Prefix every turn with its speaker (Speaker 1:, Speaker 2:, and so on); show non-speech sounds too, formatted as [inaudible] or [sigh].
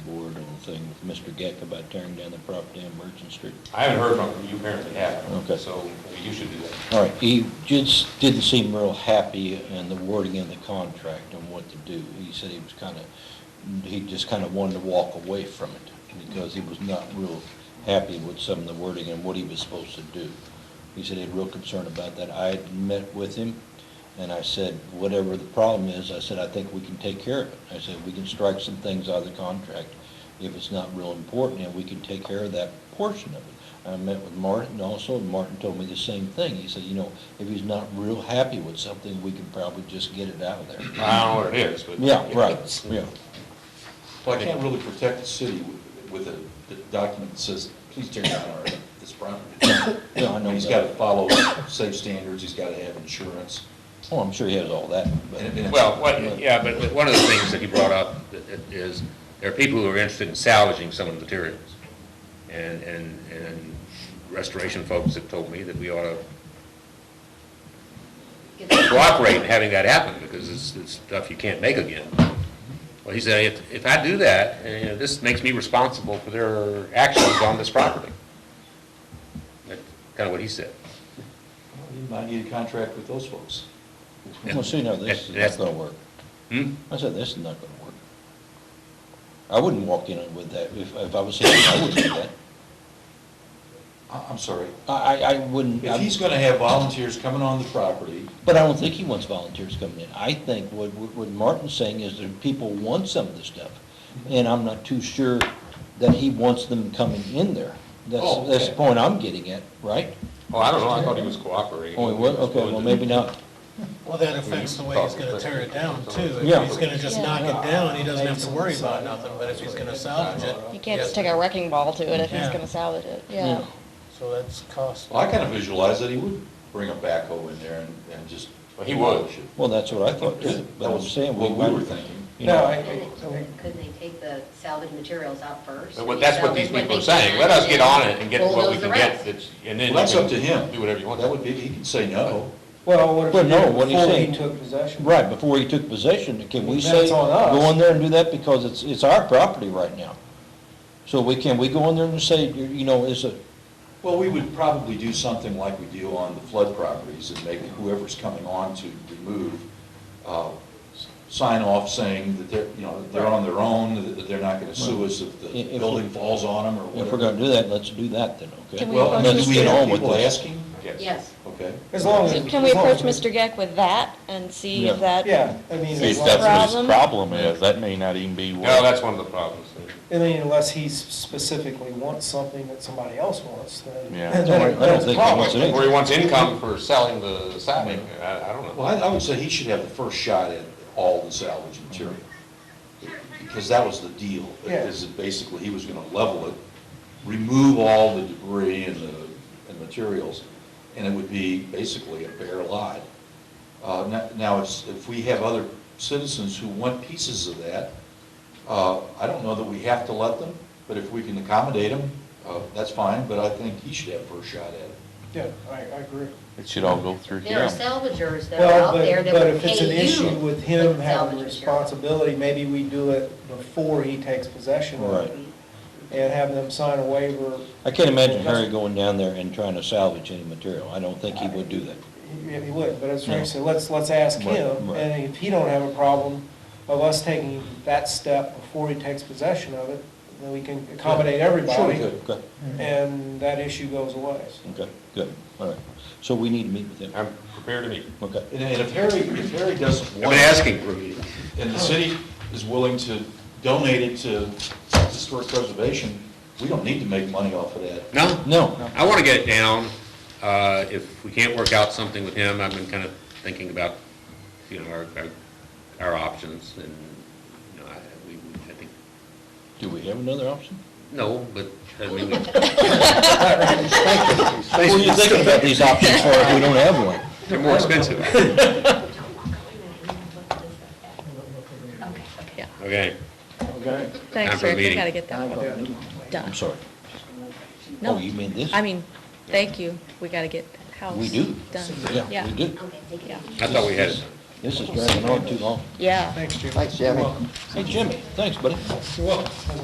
Speaker 1: thing with Mr. Geck about tearing down the property on Virgin Street?
Speaker 2: I haven't heard from you, apparently haven't.
Speaker 1: Okay.
Speaker 2: So you should do that.
Speaker 1: All right, he just didn't seem real happy in the wording in the contract on what to do. He said he was kind of, he just kind of wanted to walk away from it because he was not real happy with some of the wording and what he was supposed to do. He said he had real concern about that. I had met with him and I said, whatever the problem is, I said, I think we can take care of it. I said, we can strike some things out of the contract if it's not real important and we can take care of that portion of it. I met with Martin also, and Martin told me the same thing. He said, you know, if he's not real happy with something, we can probably just get it out of there.
Speaker 2: I don't know what it is, but.
Speaker 1: Yeah, right, yeah.
Speaker 3: Well, I can't really protect the city with- with a d- document that says, please tear down our, this property.
Speaker 1: Yeah, I know
Speaker 3: He's got
Speaker 1: that.
Speaker 3: to follow safe standards, he's got to have insurance.
Speaker 1: Oh, I'm sure he has all that, but,
Speaker 3: And- and-
Speaker 2: Well, what- yeah, but one of the things that he brought up is, there are people who are interested in salvaging some of the materials. And, and, and restoration folks have told me that we ought to cooperate in having that happen, because it's, it's stuff you can't make again. Well, he said, if, if I do that, and, you know, this makes me responsible for their actions on this property. That's kind of what he said.
Speaker 3: You might need a contract with those folks.
Speaker 1: well, see, no, this is not gonna work.
Speaker 2: Hmm?
Speaker 1: I said, this is not gonna work. I wouldn't walk in with that. If, if I was him, I wouldn't do that.
Speaker 3: I- I'm sorry.
Speaker 1: I, I, I wouldn't.
Speaker 3: If he's going to have volunteers coming on the property,
Speaker 1: But I don't think he wants volunteers coming in. I think what, what what Martin's saying is that people want some of this stuff. And I'm not too sure that he wants them coming in there.
Speaker 3: Oh,
Speaker 1: That's,
Speaker 3: okay.
Speaker 1: that's the point I'm getting at, right?
Speaker 2: Oh, I don't know, I thought he was cooperating.
Speaker 1: Oh, he was, okay, well, maybe not.
Speaker 4: Well, that affects the way he's gonna tear it down too.
Speaker 1: Yeah.
Speaker 4: If he's gonna just knock it down, he doesn't have to worry about nothing, but if he's gonna salvage it.
Speaker 5: You can't just take a wrecking ball to it if he's
Speaker 4: Yeah.
Speaker 5: gonna salvage it, yeah.
Speaker 4: So that's cost.
Speaker 3: well, I kind of visualize that he would bring a backhoe in there and, and just.
Speaker 2: Well, he would.
Speaker 3: demolish it.
Speaker 1: Well, that's what I thought too, but I'm saying we
Speaker 3: What we were
Speaker 1: might,
Speaker 3: thinking.
Speaker 1: you know,
Speaker 6: Couldn't they take the salvage materials out first?
Speaker 2: But what- that's what these people are saying, let us get on it and get what we can get, that's- and then.
Speaker 3: Well, that's
Speaker 2: you can
Speaker 3: up to him.
Speaker 2: Do whatever you want.
Speaker 3: That would be, he can say no.
Speaker 7: Well, what if
Speaker 1: Well,
Speaker 7: he
Speaker 1: no,
Speaker 7: did it
Speaker 1: what he's
Speaker 7: before he
Speaker 1: saying-
Speaker 7: took possession?
Speaker 1: right, before he took possession, can we
Speaker 7: That's
Speaker 1: say,
Speaker 7: on us.
Speaker 1: go in there and do that because it's, it's our property right now? So we, can we go in there and say, you you know, is a,
Speaker 3: Well, we would probably do something like we do on the flood properties and make whoever's coming on to remove, uh, sign off saying that they're, you know, that they're on their own, that they're not gonna sue us if
Speaker 1: If- if
Speaker 3: the
Speaker 1: we-
Speaker 3: building falls on them
Speaker 1: if
Speaker 3: or
Speaker 1: we're
Speaker 3: whatever.
Speaker 1: gonna do that, let's do that then, okay?
Speaker 5: Can we
Speaker 3: Well,
Speaker 5: approach
Speaker 3: unless
Speaker 5: Mr.
Speaker 3: we have
Speaker 1: Allen with
Speaker 3: people
Speaker 1: this?
Speaker 3: asking,
Speaker 6: Yes.
Speaker 3: okay.
Speaker 7: As long as.
Speaker 5: So Can we
Speaker 7: as long as
Speaker 5: approach Mr. Geck with that and see if
Speaker 1: Yeah.
Speaker 5: that?
Speaker 7: Yeah, I mean,
Speaker 8: See, if
Speaker 7: as long
Speaker 8: that's
Speaker 7: as-
Speaker 8: what his
Speaker 5: Problem?
Speaker 8: problem is, that may not even be what.
Speaker 2: No, that's one of the problems.
Speaker 7: I mean, unless he specifically wants something that somebody else wants, then.
Speaker 8: Yeah.
Speaker 7: then
Speaker 1: No, I- I don't
Speaker 7: that's a
Speaker 1: think he
Speaker 7: problem.
Speaker 1: wants it.
Speaker 2: Where he wants income for selling the siding, I, I don't
Speaker 3: Well,
Speaker 2: know.
Speaker 3: I, I would say he should have the first shot at all the salvage material, because that was the deal.
Speaker 7: Yeah.
Speaker 3: Is that basically he was gonna level it, remove all the debris and the, and materials, and it would be basically a bare lot. Uh, now, now, it's- if we have other citizens who want pieces of that, uh, I don't know that we have to let them, but if we can accommodate them, uh, that's fine, but I think he should have first shot at it.
Speaker 7: Yeah, I, I agree.
Speaker 8: It should all go through
Speaker 6: There are
Speaker 8: him.
Speaker 6: salvagers that are
Speaker 7: Well,
Speaker 6: out there
Speaker 7: but,
Speaker 6: that
Speaker 7: but
Speaker 6: would
Speaker 7: if it's an
Speaker 6: pay you.
Speaker 7: issue with
Speaker 6: for
Speaker 7: him
Speaker 6: the
Speaker 7: having
Speaker 6: salvage
Speaker 7: responsibility, maybe we do it before he takes possession of it.
Speaker 1: Right.
Speaker 7: And have them sign a waiver,
Speaker 1: I can't imagine Harry going down there and trying to salvage any material. I don't think he would do that.
Speaker 7: he, he would, but as
Speaker 1: No.
Speaker 7: Frank said, let's, let's ask
Speaker 1: Right,
Speaker 7: him.
Speaker 1: right.
Speaker 7: And if he don't have a problem of us taking that step before he takes possession of it, then we can accommodate
Speaker 3: Sure, he
Speaker 7: everybody.
Speaker 3: could.
Speaker 1: Okay,
Speaker 7: Mm-hmm. And that issue goes away.
Speaker 1: okay, good, all right. So we need to meet with him,
Speaker 2: I'm prepared to meet.
Speaker 1: okay.
Speaker 3: And and if Harry, if Harry doesn't
Speaker 2: I've
Speaker 3: want.
Speaker 2: been asking for a meeting.
Speaker 3: and the city is willing to donate it to historic preservation, we don't need to make money off of that.
Speaker 2: No?
Speaker 1: No,
Speaker 2: I want to get it down. Uh, If we can't work out something with him, I've been kind of thinking about, you know, our, our- our options and, you know, I, we, I think,
Speaker 1: do we have another
Speaker 5: [laughs]
Speaker 1: option?
Speaker 2: no, but, I mean, we-
Speaker 1: What are you thinking about these options for if we don't have one?
Speaker 2: they're more expensive.
Speaker 6: Okay, okay.
Speaker 2: Okay.
Speaker 7: Okay.
Speaker 2: Thanks, Rick. We meeting. gotta
Speaker 5: get that
Speaker 1: I'm sorry. Oh,
Speaker 5: No.
Speaker 1: you mean this?
Speaker 5: mean, thank you, we gotta get house
Speaker 1: We do. Yeah, we do.
Speaker 6: Okay, thank you.
Speaker 2: I thought we had it.
Speaker 1: This is dragging on too long.
Speaker 5: Yeah.
Speaker 7: Thanks, Jim.
Speaker 1: Hey, Jimmy, thanks, buddy.